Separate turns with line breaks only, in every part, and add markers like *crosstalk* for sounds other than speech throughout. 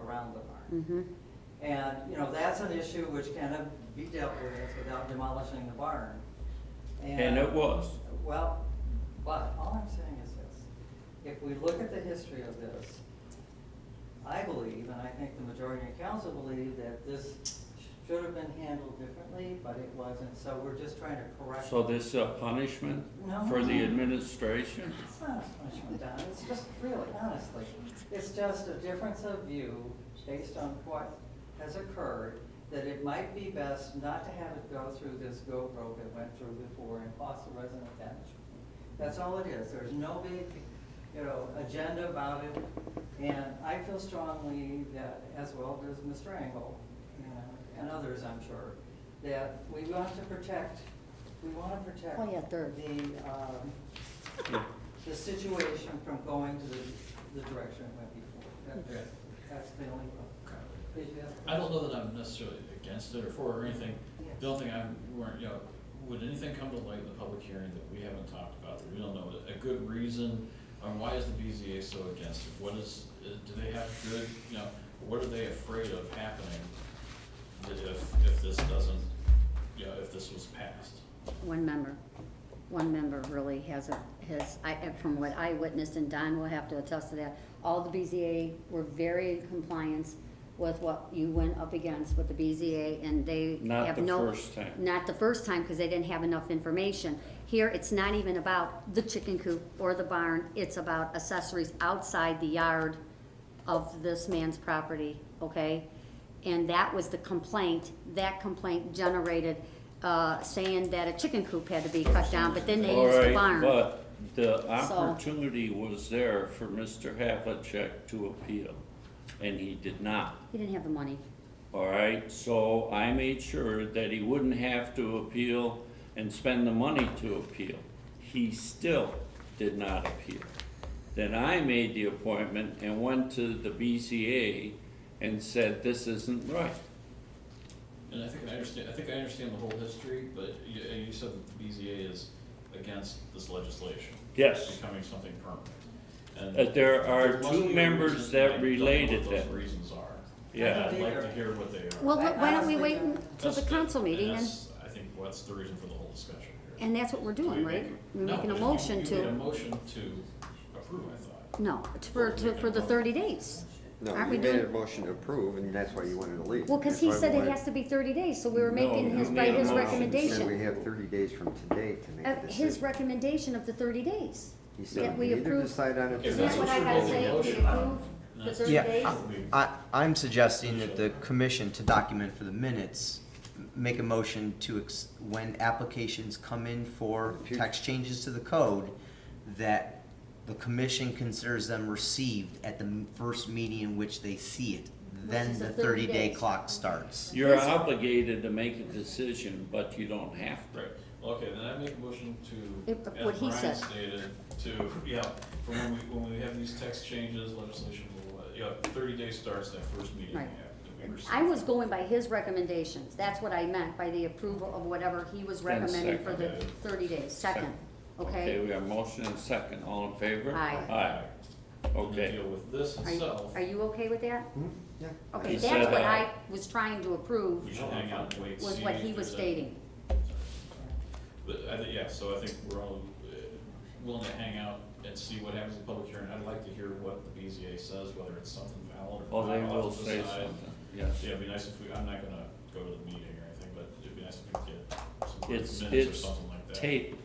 around the barn.
Mm-hmm.
And, you know, that's an issue which can be dealt with without demolishing the barn.
And it was.
Well, but all I'm saying is this, if we look at the history of this, I believe, and I think the majority of council believe, that this should have been handled differently, but it wasn't, so we're just trying to correct.
So this a punishment for the administration?
It's not as much from Don, it's just really, honestly, it's just a difference of view based on what has occurred, that it might be best not to have it go through this go broke it went through before and cost the resident damage. That's all it is, there's no big, you know, agenda about it, and I feel strongly that, as well does Mr. Engel, you know, and others, I'm sure, that we want to protect, we want to protect
Oh, yeah, third.
the, um, the situation from going to the, the direction it went before. That-
Okay.
That's the only problem. Did you have a
I don't know that I'm necessarily against it or for or anything.
Yes.
The only thing I'm, weren't, you know, would anything come to light in the public hearing that we haven't talked about, that we don't know, a good reason on why is the BZA so against it? What is, uh, do they have good, you know, what are they afraid of happening that if, if this doesn't, you know, if this was passed?
One member, one member really has a, has, I, and from what I witnessed, and Don will have to attest to that, all the BZA were very in compliance with what you went up against with the BZA, and they
Not
have
the
no.
first time.
Not the first time, because they didn't have enough information. Here, it's not even about the chicken coop or the barn, it's about accessories outside the yard of this man's property, okay? And that was the complaint, that complaint generated, uh, saying that a chicken coop had to be cut down, but then they
All
used the
right,
barn.
but the opportunity was there for Mr. Havlicek to appeal, and he did not.
He didn't have the money.
All right, so I made sure that he wouldn't have to appeal and spend the money to appeal. He still did not appeal. Then I made the appointment and went to the BCA and said, this isn't right.
And I think I understand, I think I understand the whole history, but you, you said that the BZA is against this legislation.
Yes.
Becoming something permanent. And
That there are
must
two
be a
members
reason,
that
I don't know
related
what those
that.
reasons are.
Yeah.
I'd like to hear what they are.
Well,
I
wh- why don't we
honestly
wait
don't-
until the
That's-
council meeting,
And
and,
that's, I think, what's the reason for the whole discussion here.
and that's what we're doing,
we
right?
make-
We're
No,
making a
but you-
motion
You made a
to,
motion to approve, I thought.
no, it's for, to- for the thirty days.
No,
Aren't we
you made a
doing-
motion to approve, and that's why you wanted to leave.
Well, because he said it has to be thirty days, so we were making
No,
his,
you
by
made a
his
motion.
And we
recommendation.
have thirty days from today to make
Uh,
a
His
decision.
recommendation of the thirty days.
He
that
said,
we
we either
approve-
decide on it
If
Isn't that
that's
tonight.
what
what
I
you're
gotta
voting
say? We
on, I don't-
approve the
that's-
30
Yeah,
days?
We-
I, I'm suggesting that the commission to document for the minutes, m- make a motion to, ex- when applications come in for tax changes to the code, that the commission considers them received at the m- first meeting in which they see it.
is
Then
the
the
30
thirty-day
days.
clock starts.
You're obligated to make a decision, but you don't have to.
Right, okay, then I make a motion to,
It- what
as
he
Brian
said.
stated, to, yeah, for when we, when we have these text changes, legislation, blah, blah, blah, yeah, thirty days starts that first meeting we
Right.
have, that we receive.
I was going by his recommendations, that's what I meant, by the approval of whatever he was
Then
recommending for the
second.
thirty days, second,
Okay,
okay?
we have motion and second, all in favor?
Aye.
Aye,
And then
okay.
deal with this
Are you,
itself,
are you okay with that?
Hmm? Yeah.
*laughs* Okay,
He
that's
said
what I
aye.
was trying to
we
approve,
should hang out and wait, see.
was what
if
he was
there's a-
stating.
But I thi- yeah, so I think we're all uh, willing to hang out and see what happens in public hearing. I'd like to hear what the BZA says, whether it's something valid or
Oh,
not.
they
I'll
will
have to
say
decide.
something, yes.
Yeah, it'd be nice if we, I'm not gonna go to the meeting or anything, but it'd be nice if we could get
It's,
some minutes or
it's
something like that.
tape,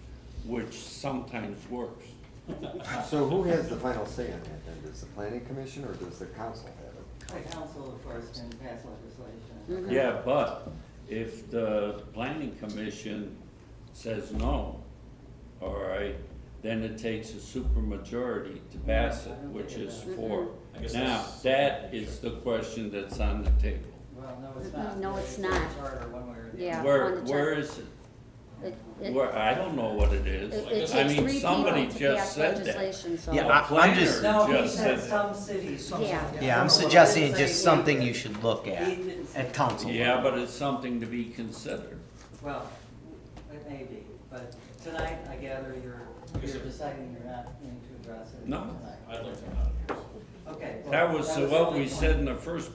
which sometimes works.
So who has the final say on that then? Does the planning commission or does the council have it?
The council, of course, can pass legislation.
Mhm.
Yeah, but if the planning commission says no, all right, then it takes a supermajority to pass it, which is
Mm-hmm.
four.
I guess
Now,
that's-
that is the question that's on the table.
Well, no, it's not.
Mm-hmm. No, it's
in the
not.
Charter, one way or the other.
Yeah. on
Where,
the
where
chart.
is it?
It- it-
Where, I don't know what
It,
it is.
it
I
takes
mean,
three people
somebody
to
just
pass
said that.
legislation, so.
A
Yeah, I- I'm
planner
just-
No, he
just
said
that.
some cities.
Yeah.
Yeah, I'm suggesting it's just something you should look at, at council.
Yeah, but it's something to be considered.
Well, it may be, but tonight, I gather you're,
Yes,
you're
sir.
deciding you're not going to address it
No.
tonight.
I'd like to know.
Okay. well,
That was
the
what
only
we
point.
said in the first